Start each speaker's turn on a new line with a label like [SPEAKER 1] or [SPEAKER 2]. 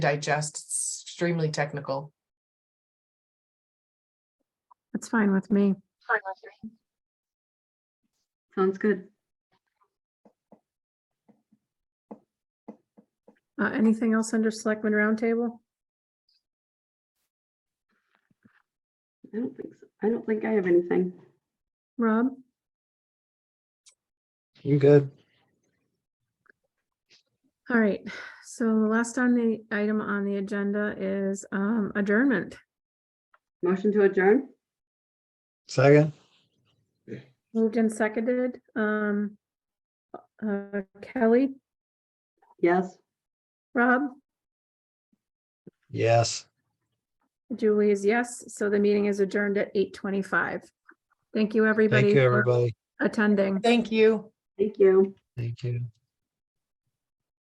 [SPEAKER 1] digest. It's extremely technical.
[SPEAKER 2] That's fine with me.
[SPEAKER 3] Sounds good.
[SPEAKER 2] Uh, anything else under Selectmen Roundtable?
[SPEAKER 3] I don't think, so. I don't think I have anything.
[SPEAKER 2] Rob?
[SPEAKER 4] I'm good.
[SPEAKER 2] All right, so the last on the item on the agenda is um adjournment.
[SPEAKER 3] Motion to adjourn?
[SPEAKER 4] Second,
[SPEAKER 2] Moved and seconded. Um uh, Kelly,
[SPEAKER 3] Yes.
[SPEAKER 2] Rob,
[SPEAKER 4] yes.
[SPEAKER 2] Julie is yes, so the meeting is adjourned at eight twenty-five. Thank you, everybody.
[SPEAKER 4] Thank you,
[SPEAKER 2] for
[SPEAKER 4] everybody.
[SPEAKER 2] Attending.
[SPEAKER 1] Thank you.
[SPEAKER 3] Thank you.
[SPEAKER 4] Thank you.